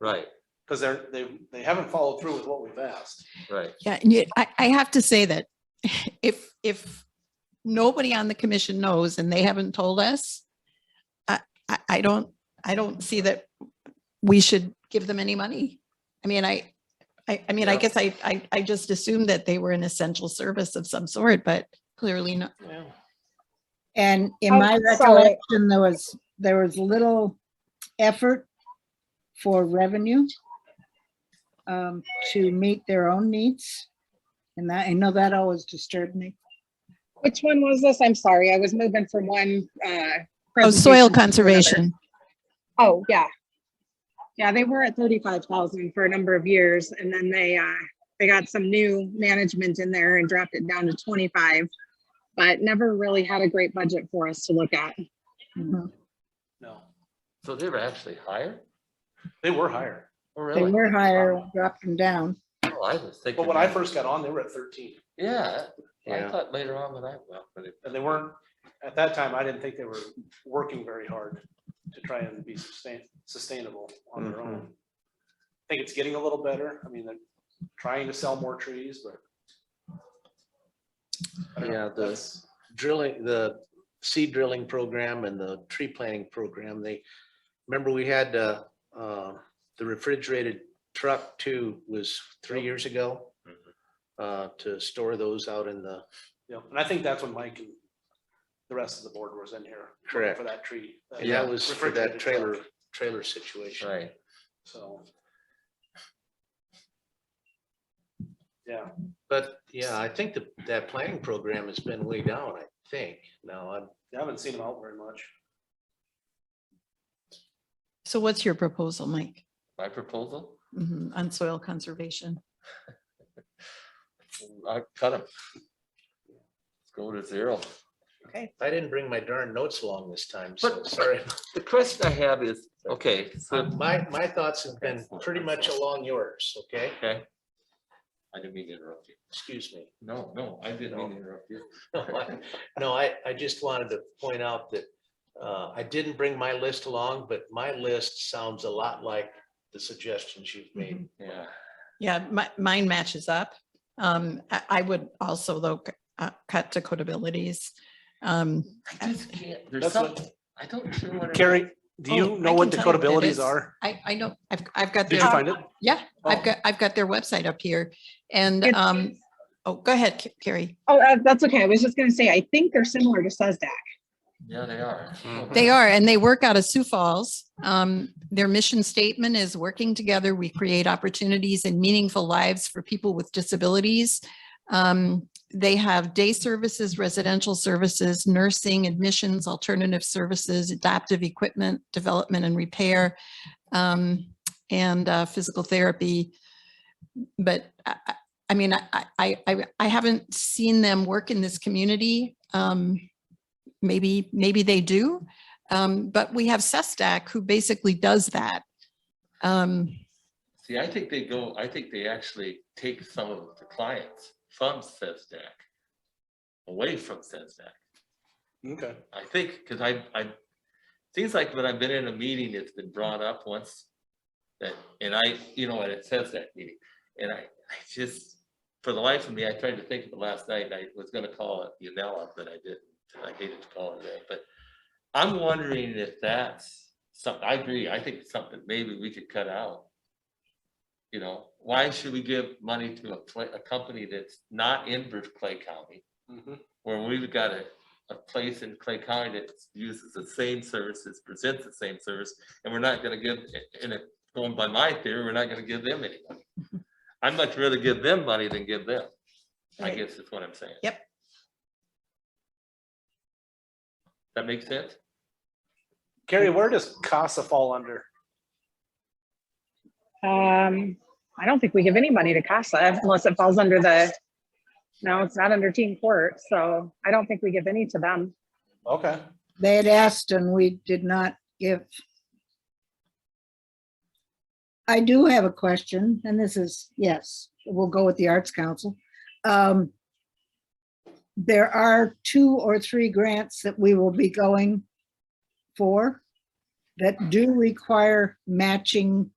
Right, because they're, they, they haven't followed through with what we've asked. right. Yeah, and yet, I, I have to say that if, if nobody on the commission knows and they haven't told us, I, I, I don't, I don't see that we should give them any money. I mean, I, I, I mean, I Yeah. guess I, I, I just assumed that they were an essential service of some sort, but clearly not. And in I'm my sorry. recollection, there was, there was little effort for revenue um, to meet their own needs. And that, I know that always disturbed me. Which one was this? I'm sorry, I was moving from one, uh. Oh, soil presentation to another. conservation. Oh, yeah. Yeah, they were at thirty-five thousand for a number of years and then they, uh, they got some new management in there and dropped it down to twenty-five. But never really had a great budget for us to look at. No, So they were actually higher? they were higher. Oh, They really? were higher, dropped them down. Oh, I was thinking. But when I that- first got on, they were at thirteen Yeah, I Yeah. thought later on that I, well, but it, and they weren't, at that time, I didn't think they were working very hard to try and be sustain, sustainable on their Mm-hmm. own. I think it's getting a little better. I mean, they're trying to sell more trees, but. I don't know. Yeah, the That's- drilling, the seed drilling program and the tree planting program, they, remember we had, uh, uh, the refrigerated truck too was three years ago. Mhm. Uh, to store those out in the, Yeah, and I think that's when Mike and the rest of the board was in here. looking Correct. For that tree. that and that was for that refrigerated truck. trailer, trailer situation. right, So. Yeah, But yeah, I think that, that planning program has been way down, I think. Now, I'm, I haven't seen them out very much. So what's your proposal, Mike, my proposal, Mhm, on soil conservation? I cut them. Go to zero. I didn't bring my darn notes along this time, so But- sorry. The question I have is, okay, so, My, my thoughts have been pretty much along yours, okay? okay. I didn't mean to interrupt you. Excuse me. No, no, I didn't mean to interrupt you. No, I- No, I, I just wanted to point out that uh, I didn't bring my list along, but my list sounds a lot like the suggestions you've made. Yeah, Yeah, my, mine matches up. Um, I, I would also though, c- uh, cut to codabilities. Um, I just can't, there's That's what- something, I don't sure what. it is. Carrie, do Oh, you I know what can tell you what it is. Dakotabilities are? I, I know, I've, I've got, Did their you find it? yeah, Oh. I've got, I've got their website up here. And, It's- um, oh, go ahead, Ca- Carrie. Oh, uh, that's okay. I was just gonna say, I think they're similar to SESDAC. Yeah, they are. They are, and they work out of Sioux Falls. Um, their mission statement is working together, we create opportunities and meaningful lives for people with disabilities. Um, they have day services, residential services, nursing, admissions, alternative services, adaptive equipment, development and repair, um, and, uh, physical therapy. But I, I- I mean, I, I, I, I haven't seen them work in this community. Um, maybe, maybe they do. Um, but we have Sestac who basically does that. Um, See, I think they go, I think they actually take some of the clients from SESDAC. Away from SESDAC. Okay. I think, because I, I, seems like when I've been in a meeting, it's been brought up once. That, and I, you know, and it says that meeting, and I, I just, for the life of me, I tried to think of it last night, and I was gonna call it Unella, but I didn't. and I hated to call it that, but I'm wondering if that's something, I agree, I think it's something maybe we could cut out. You know, why should we give money to a, pla- a company that's not in Clay County? Mhm. where we've got a, a place in Clay County that uses the same services, presents the same service, and we're not gonna give, and it, going by my theory, we're not gonna give them any money. I'd much rather give them money than give them, I Right. guess is what I'm saying. Yep. That makes sense? Carrie, where does CASA fall under? Um, I don't think we give any money to CASA unless it falls under the, no, it's not under team court, so I don't think we give any to them. Okay, They had asked and we did not give. I do have a question, and this is, yes, we'll go with the Arts Council. Um, There are two or three grants that we will be going for that do require matching